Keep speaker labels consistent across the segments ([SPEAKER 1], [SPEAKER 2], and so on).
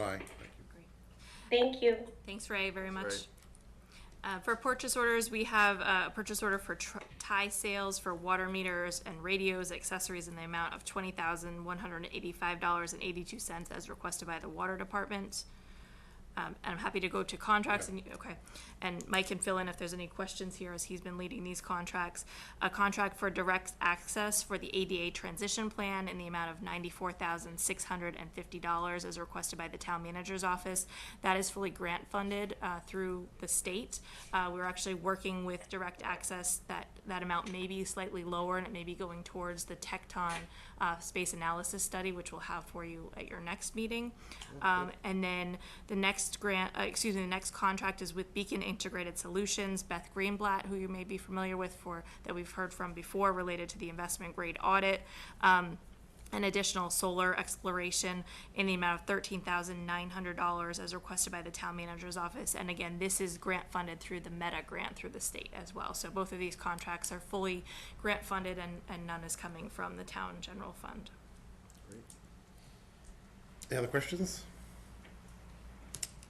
[SPEAKER 1] Aye.
[SPEAKER 2] Thank you.
[SPEAKER 3] Thanks, Ray, very much. Uh, For purchase orders, we have uh, a purchase order for tr- tie sales for water meters and radios, accessories in the amount of twenty thousand, one hundred and eighty-five dollars and eighty-two cents as requested by the water department. Um, And I'm happy to go to contracts and, okay, and Mike can fill in if there's any questions here as he's been leading these contracts. A contract for direct access for the ADA transition plan in the amount of ninety-four thousand, six hundred and fifty dollars as requested by the town manager's office. That is fully grant funded, uh, through the state. Uh, we're actually working with direct access, that, that amount may be slightly lower and it may be going towards the Tecton, uh, space analysis study, which we'll have for you at your next meeting. Um, and then the next grant, uh, excuse me, the next contract is with Beacon Integrated Solutions, Beth Greenblatt, who you may be familiar with for, that we've heard from before related to the investment grade audit. Um, an additional solar exploration in the amount of thirteen thousand nine hundred dollars as requested by the town manager's office. And again, this is grant funded through the Meta grant through the state as well. So both of these contracts are fully grant funded and, and none is coming from the town general fund.
[SPEAKER 1] Any other questions?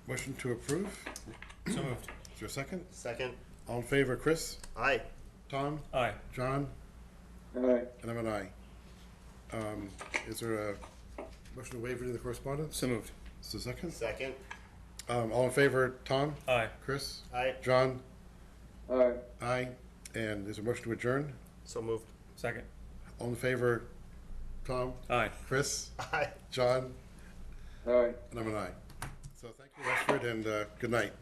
[SPEAKER 1] Motion to approve? So moved. Is there a second?
[SPEAKER 4] Second.
[SPEAKER 1] All in favor, Chris,
[SPEAKER 4] Aye.
[SPEAKER 1] Tom,
[SPEAKER 5] Aye.
[SPEAKER 1] John,
[SPEAKER 6] Aye.
[SPEAKER 1] and I'm an aye. Um, is there a motion to waive any of the correspondence?
[SPEAKER 5] So moved.
[SPEAKER 1] Is there a second?
[SPEAKER 4] Second.
[SPEAKER 1] Um, all in favor, Tom,
[SPEAKER 5] Aye.
[SPEAKER 1] Chris,
[SPEAKER 4] Aye.
[SPEAKER 1] John,
[SPEAKER 6] Aye.
[SPEAKER 1] aye, and is there a motion to adjourn?
[SPEAKER 4] So moved.
[SPEAKER 5] Second.
[SPEAKER 1] All in favor, Tom,
[SPEAKER 5] Aye.
[SPEAKER 1] Chris,
[SPEAKER 4] Aye.
[SPEAKER 1] John,
[SPEAKER 6] Aye.
[SPEAKER 1] and I'm an aye. So thank you, Westford, and, uh, good night.